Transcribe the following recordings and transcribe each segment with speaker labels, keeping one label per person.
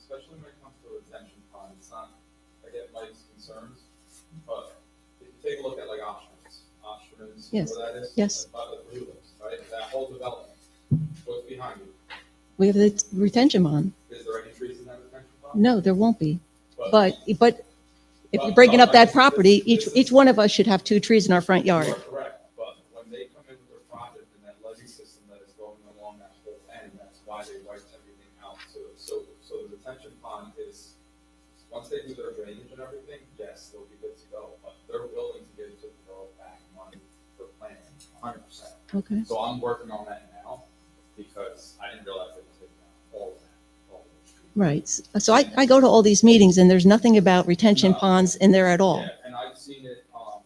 Speaker 1: especially when it comes to retention time, it's not, I get Mike's concerns, but if you take a look at like Oshman's, Oshman's,
Speaker 2: Yes.
Speaker 1: where that is?
Speaker 2: Yes.
Speaker 1: By the blue list, right, that whole development, what's behind you,
Speaker 2: We have the retention bond.
Speaker 1: is there any trees in that retention pond?
Speaker 2: No, there won't be. But, but if you're breaking up that property, each, each one of us should have two trees in our front
Speaker 1: You
Speaker 2: yard.
Speaker 1: are correct, but when they come in with their project and that levee system that is going along that whole end, that's why they wiped everything out. So, so, so the retention pond is, once they do their drainage and everything, yes, they'll be good to go, but they're willing to give to the borough back money for planning, hundred percent.
Speaker 2: Okay.
Speaker 1: So I'm working on that now, because I didn't realize they were taking out all of that, all of those trees.
Speaker 2: Right. So I, I go to all these meetings and there's nothing about retention
Speaker 1: No.
Speaker 2: ponds in there at all.
Speaker 1: Yeah, and I've seen it, um,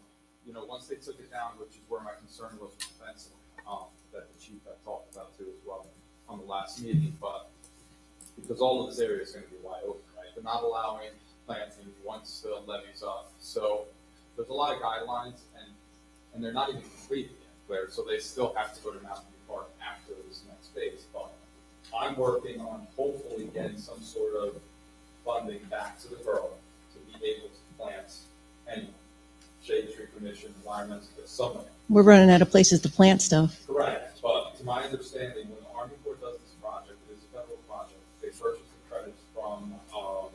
Speaker 1: you know, once they took it down, which is where my concern was with the fencing, um, that the chief had talked about too as well on the last meeting, but because all of this area is gonna be wide open, right? They're not allowing planting once the levee's up, so there's a lot of guidelines and, and they're not even completed yet, Claire, so they still have to go to Mountain View Park after this next phase, but I'm working on hopefully getting some sort of funding back to the borough to be able to plant any shade tree commission, environmental, something.
Speaker 2: We're running out of places to plant stuff.
Speaker 1: Correct. But to my understanding, when the Army Corps does this project, it is a federal project, they purchase the credits from, um,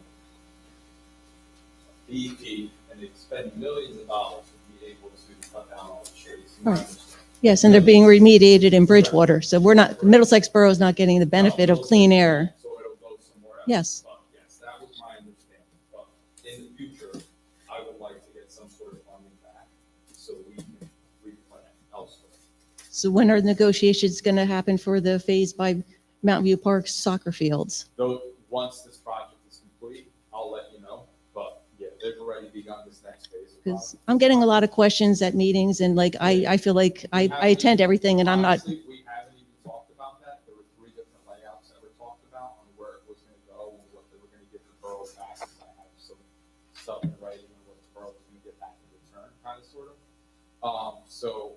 Speaker 1: DEP, and they spend millions of dollars to be able to cut down all the trees.
Speaker 2: Right. Yes, and they're being remediated in Bridgewater. So we're not, Middlesex Borough is not getting the benefit of clean air.
Speaker 1: So it'll go somewhere else.
Speaker 2: Yes.
Speaker 1: But yes, that was my understanding, but in the future, I would like to get some sort of funding back, so we can replant elsewhere.
Speaker 2: So when are the negotiations going to happen for the phase by Mountain View Park soccer fields?
Speaker 1: Though, once this project is complete, I'll let you know, but yeah, they've already begun this next phase. of
Speaker 2: Because
Speaker 1: project.
Speaker 2: I'm getting a lot of questions at meetings and like, I, I feel like I, I attend everything and I'm not,
Speaker 1: Honestly, we haven't even talked about that, there were three different layouts that were talked about on where it was gonna go, and what they were gonna give the borough back, 'cause I have some stuff in writing on what the borough was gonna get back in return, kinda sort of. Um, so,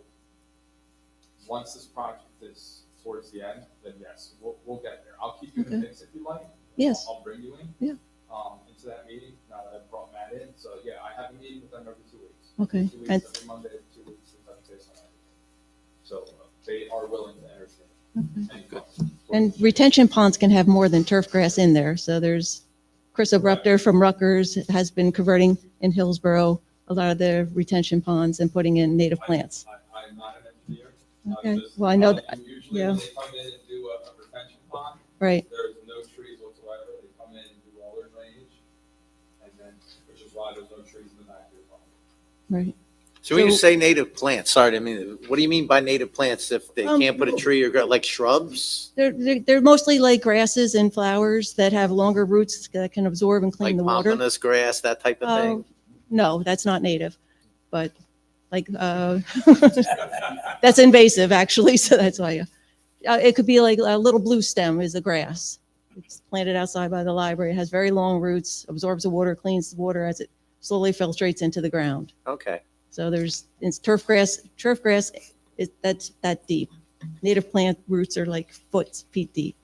Speaker 1: once this project is towards the end, then yes, we'll, we'll get there, I'll keep you in the
Speaker 2: Okay.
Speaker 1: mix if you like.
Speaker 2: yes,
Speaker 1: I'll bring you in.
Speaker 2: Yeah.
Speaker 1: Um, into that meeting, now that I've brought Matt in, so yeah, I have a meeting with them every two weeks.
Speaker 2: okay.
Speaker 1: Two
Speaker 2: And-
Speaker 1: weeks, every Monday, two weeks, and touch base on everything. So uh, they are willing to entertain any questions.
Speaker 2: Mm-hmm. And retention ponds can have more than turf grass in there. So there's Chris Abrupter from Rutgers has been converting in Hillsborough a lot of the retention ponds and putting in native plants.
Speaker 1: I, I'm not an engineer. I'm
Speaker 2: Okay,
Speaker 1: just
Speaker 2: well, I know,
Speaker 1: telling
Speaker 2: that-
Speaker 1: you, Usually
Speaker 2: yeah.
Speaker 1: when they come in and do a a retention pond,
Speaker 2: right,
Speaker 1: there's no trees whatsoever, they come in and do all their drainage. And then, which is why there's no trees in the back of your pond.
Speaker 2: right.
Speaker 3: So when you
Speaker 2: So-
Speaker 3: say native plants, sorry, I mean, what do you mean by native plants if they
Speaker 2: Um,
Speaker 3: can't put a tree or grow, like shrubs?
Speaker 2: They're, they're, they're mostly like grasses and flowers that have longer roots that can absorb and clean
Speaker 3: Like
Speaker 2: the water.
Speaker 3: pomponous grass, that type of
Speaker 2: Oh,
Speaker 3: thing?
Speaker 2: no, that's not native, but like, uh, that's invasive actually, so that's why. Uh, it could be like a little blue stem is the grass. It's planted outside by the library, It has very long roots, absorbs the water, cleans the water as it slowly filtrates into the ground.
Speaker 3: Okay,
Speaker 2: So there's, it's turf grass, turf grass, it, that's that deep. Native plant roots are like foot, feet deep.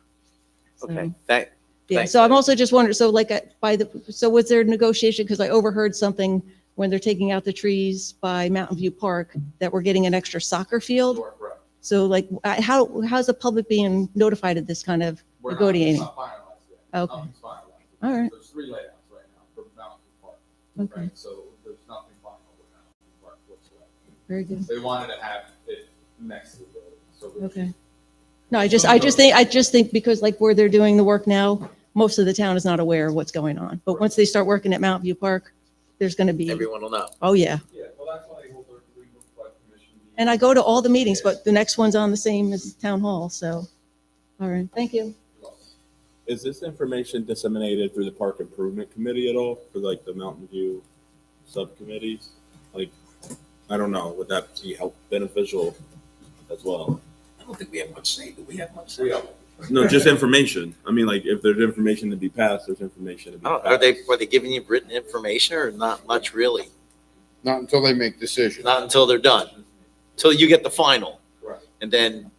Speaker 2: So-
Speaker 3: okay, that,
Speaker 2: yeah,
Speaker 3: Thank
Speaker 2: so I'm
Speaker 3: you.
Speaker 2: also just wondering, so like uh, by the, so was there negotiation, because I overheard something when they're taking out the trees by Mountain View Park, that we're getting an extra soccer
Speaker 1: You
Speaker 2: field?
Speaker 1: are correct.
Speaker 2: So like, I- how, how's the public being notified of this kind of,
Speaker 1: We're not, it's
Speaker 2: Negotiating.
Speaker 1: not finalized yet.
Speaker 2: Okay.
Speaker 1: Nothing's finalized.
Speaker 2: All right.
Speaker 1: There's three layouts right now for Mountain View Park,
Speaker 2: okay,
Speaker 1: right? So there's nothing final with Mountain View Park whatsoever.
Speaker 2: very good,
Speaker 1: They wanted to have it next to the building, so. we-
Speaker 2: okay. No, I just, I just think, I just think because like where they're doing the work now, most of the town is not aware of what's going on. But once they start working at Mountain View Park, there's going to be,
Speaker 3: everyone will know.
Speaker 2: oh yeah.
Speaker 1: Yeah, well, that's why they hold their three book club commission meeting.
Speaker 2: And I go to all the meetings, but the next one's on the same as Town Hall, so, all right, thank you.
Speaker 4: Is this information disseminated through the park improvement committee at all for like the Mountain View subcommittees? Like, I don't know, would that be help beneficial as well?
Speaker 5: I don't think we have much say, do we have much
Speaker 1: We
Speaker 5: say?
Speaker 1: are,
Speaker 4: No, just information. I mean, like if there's information to be passed, there's information to be
Speaker 3: I don't-
Speaker 4: passed.
Speaker 3: Oh, Are they, are they giving you written information or not much really?
Speaker 6: Not until they make decisions.
Speaker 3: Not until they're done, till you get the final.
Speaker 1: Right.
Speaker 3: And then